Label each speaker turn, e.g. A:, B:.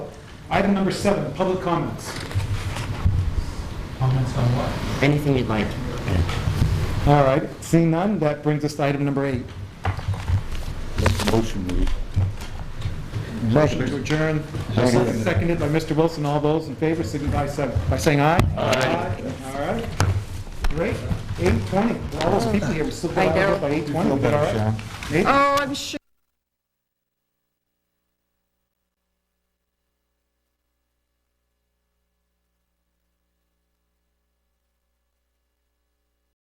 A: Item number seven, public comments.
B: Comments on what?
C: Anything you'd like.
A: All right, seeing none, that brings us to item number eight.
D: Motion, we...
A: Motion to adjourn,
D: Second.
A: seconded by Mr. Wilson. All those in favor signify so- by saying aye. Aye. All right, great, 8:20. All those people here, we still got out of here by 8:20. Is that all right?
C: Oh, I'm sure.